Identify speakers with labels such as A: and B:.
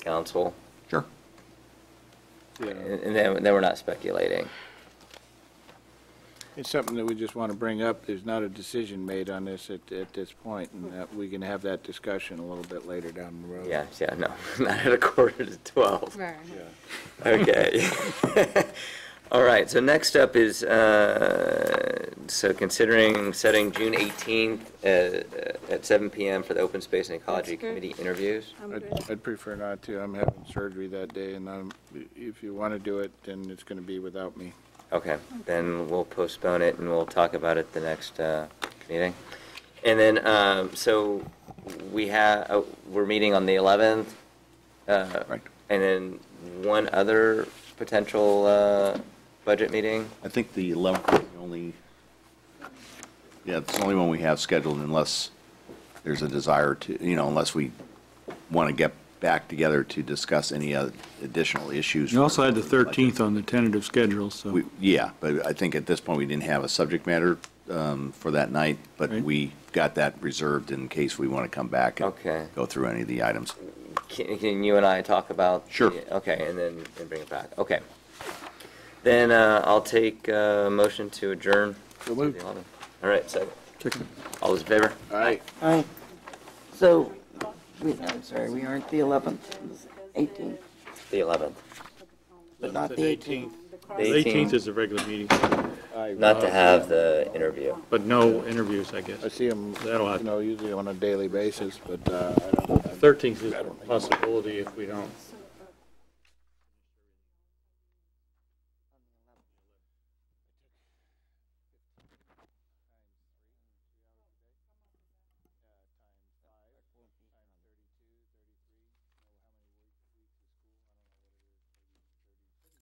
A: council,
B: Sure.
A: and
C: Yeah,
A: and then, then we're not speculating.
C: It's something that we just want to bring up. There's not a decision made on this at, at this point, and that we can have that discussion a little bit later down the road.
A: Yeah, yeah, no, not at a quarter to 12.
D: Right.
A: Okay. All right, so next up is, uh, so considering setting June 18th uh, at 7 PM for the Open Space and Ecology
D: That's good.
A: Committee interviews.
D: I'm
C: I'd,
D: good.
C: I'd prefer not to. I'm having surgery that day, and I'm, if you want to do it, then it's going to be without me.
A: Okay, then we'll postpone it and we'll talk about it the next uh, meeting. And then, um, so we have, uh, we're meeting on the 11th. uh,
C: Right.
A: And then one other potential uh, budget meeting?
B: I think the 11th is the only, yeah, it's the only one we have scheduled unless there's a desire to, you know, unless we want to get back together to discuss any other additional issues.
E: You also had the
B: for budget.
E: 13th on the tentative schedule, so
B: We- Yeah, but I think at this point, we didn't have a subject matter um, for that night, but
E: Right.
B: we got that reserved in case we want to come back and
A: Okay.
B: go through any of the items.
A: Can, can you and I talk about?
B: Sure.
A: the- Okay, and then, and bring it back, okay. Then, uh, I'll take, uh, motion to adjourn.
C: So moved.
A: To the 11th. All right, so, all those in favor?
C: All right.
F: Aye. So, we, I'm sorry, we aren't the 11th, 18th,
A: The 11th.
F: but not the 18th.
A: The
E: the 18th
A: 18th,
E: is a regular meeting,
A: not to have the interview.
E: but no interviews, I guess.
C: I see them,
E: That'll
C: you
E: happen.
C: know, usually on a daily basis, but, uh, I don't,
E: 13th is a possibility if we don't